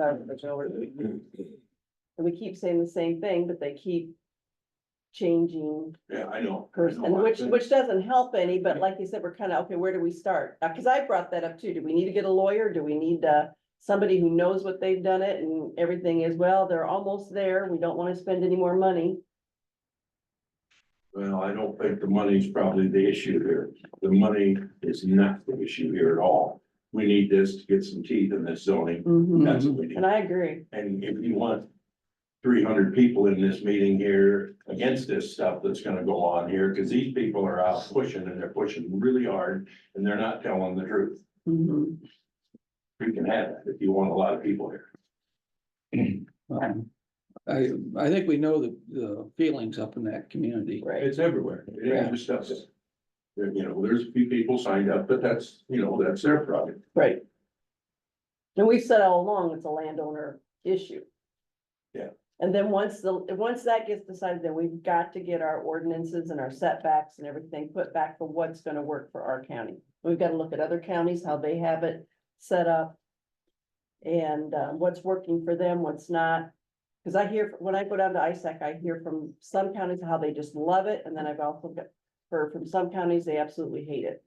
Uh, there's no- And we keep saying the same thing, but they keep changing Yeah, I know. I person, know. which, which doesn't help any, but like you said, we're kind of, okay, where do we start? Uh, cause I brought that up too. Do we need to get a lawyer? Do we need, uh, somebody who knows what they've done it and everything is, well, they're almost there. We don't want to spend any more money. Well, I don't think the money's probably the issue here. The money is not the issue here at all. We need this to get some teeth in this zoning. That's what we need. And I agree. And if you want three hundred people in this meeting here against this stuff that's gonna go on here, because these people are out pushing and they're pushing really hard and they're not telling the truth. Mhm. You can have that if you want a lot of people here. Um, I, I think we know the, the feelings up in that community. Right. It's everywhere. It ain't Yeah. just us. There, you know, there's a few people signed up, but that's, you know, that's their problem. Right. And we've said all along, it's a landowner issue. Yeah. And then once the, once that gets decided, then we've got to get our ordinances and our setbacks and everything put back for what's gonna work for our county. We've gotta look at other counties, how they have it set up. And uh, what's working for them, what's not. Cause I hear, when I go down to ISAC, I hear from some counties how they just love it, and then I've also got- heard from some counties, they absolutely hate it.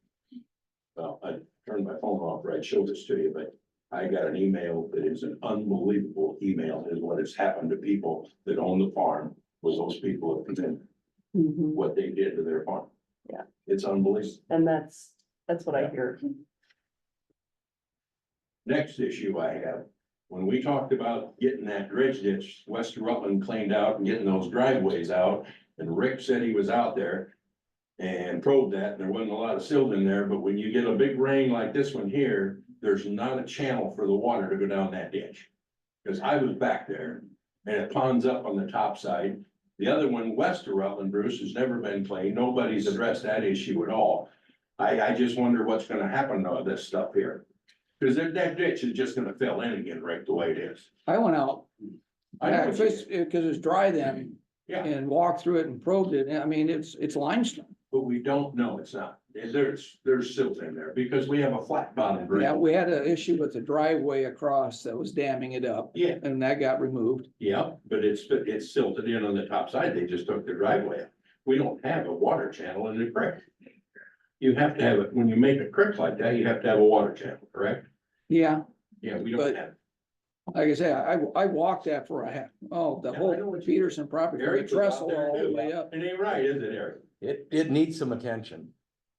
Well, I turned my phone off, right, showed this to you, but I got an email that is an unbelievable email, is what has happened to people that own the farm, was those people have been, what they did to their farm. Yeah. It's unbelievable. And that's, that's what I hear. Next issue I have, when we talked about getting that dredge ditch, west of Rutland cleaned out and getting those driveways out, and Rick said he was out there. And probed that, and there wasn't a lot of silt in there, but when you get a big rain like this one here, there's not a channel for the water to go down that ditch. Cause I was back there, and it ponds up on the top side. The other one west of Rutland, Bruce, has never been cleaned, nobody's addressed that issue at all. I, I just wonder what's gonna happen to this stuff here. Cause that, that ditch is just gonna fill in again right the way it is. I went out, I know what because you it's mean, because it's dry then. Yeah. And walked through it and probed it, and I mean, it's, it's limestone, but we don't know it's not. There's, there's silt in there because we have a flat bottom yeah, grade. we had an issue with the driveway across that was damming it up. Yeah. And that got removed, Yeah, but it's, it's silted in on the top side. They just took the driveway. out. We don't have a water channel in the creek. You have to have it, when you make a creek like that, you have to have a water channel, correct? yeah, Yeah, we don't But- have. like I say, I, I walked that for a half, oh, the Yeah, I know whole what you- Peterson property, Eric we was out trestle there all the too. way up. It ain't right, is it, Eric? It, it needs some attention.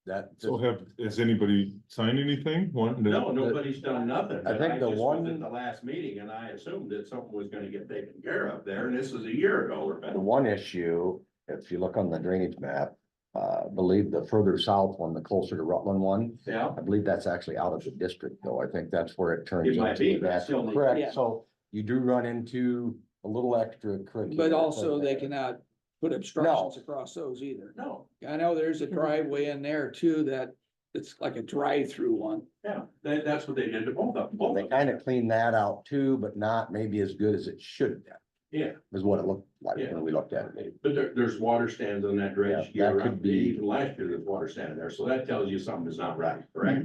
That, So have, has anybody signed anything? One, No, nobody's done nothing. but think the just was one- At the last meeting and I assumed that something was gonna get taken care of there and this is a year ago or better. the one issue, if you look on the drainage map, uh, I believe the further south one, the closer to Rutland one, Yeah. I believe that's actually out of the district though. I think that's where it turns. It might into be, the but back- still need- Yeah. Correct, so you do run into a little extra curricular. But also they thing there. cannot put obstructions across those either. No, I know there's a driveway in there too that it's like a drive-through one. yeah, that, that's what they did to both of them. both They of them. kind of clean that out too, but not maybe as good as it should have, Yeah, is what it looked like Yeah. when we looked at it. but there, there's water stands on that dredge. Yeah, that year could round. be- Even last year, there's water standing there, so that tells you something is not right, correct?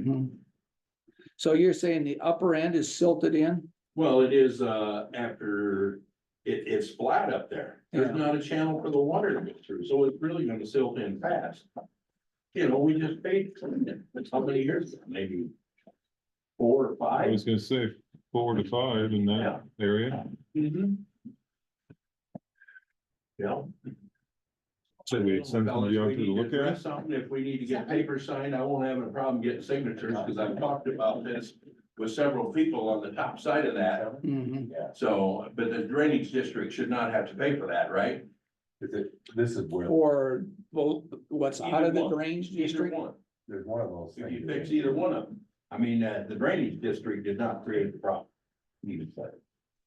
So you're saying the upper end is silted in? Well, it is, uh, after, it, it's flat up there. There's Yeah. not a channel for the water to go through, so it's really gonna silt in fast. You know, we just paid, for it, but how many years, ago? maybe four or I five? was gonna say four to five in that area. Mhm. Yeah. So we send somebody out to look at it? Something, if we need to get paper signed, I won't have a problem getting signatures, because I've talked about this with several people on the top side of that. Mm-hmm. Mhm. So, but the drainage district should not have to pay for that, right? This is where. Or both, what's out of Either the one. drainage Either district? one, There's one of those if you fix either one of them, I mean, uh, the drainage district did not create the problem. Either side.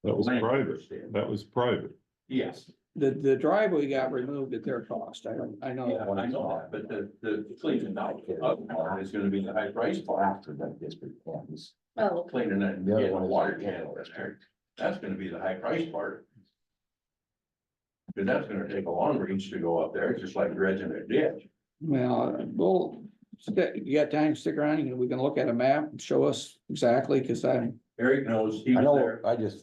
That was private. Landowners did. That was private. Yes. The, the driveway got removed at their cost. I don't, I Yeah, know. I know that, but the, the cleaning out of part is gonna be the high price part. After that district campus. Oh, Cleaning that, The other getting a one is- water channel in there, that's gonna be the high price part. Cause that's gonna take a long reach to go up there, just like dredging a ditch. Well, we'll, you got time, stick around, and we can look at a map and show us exactly, because I, Eric knows, he I was know, there. I just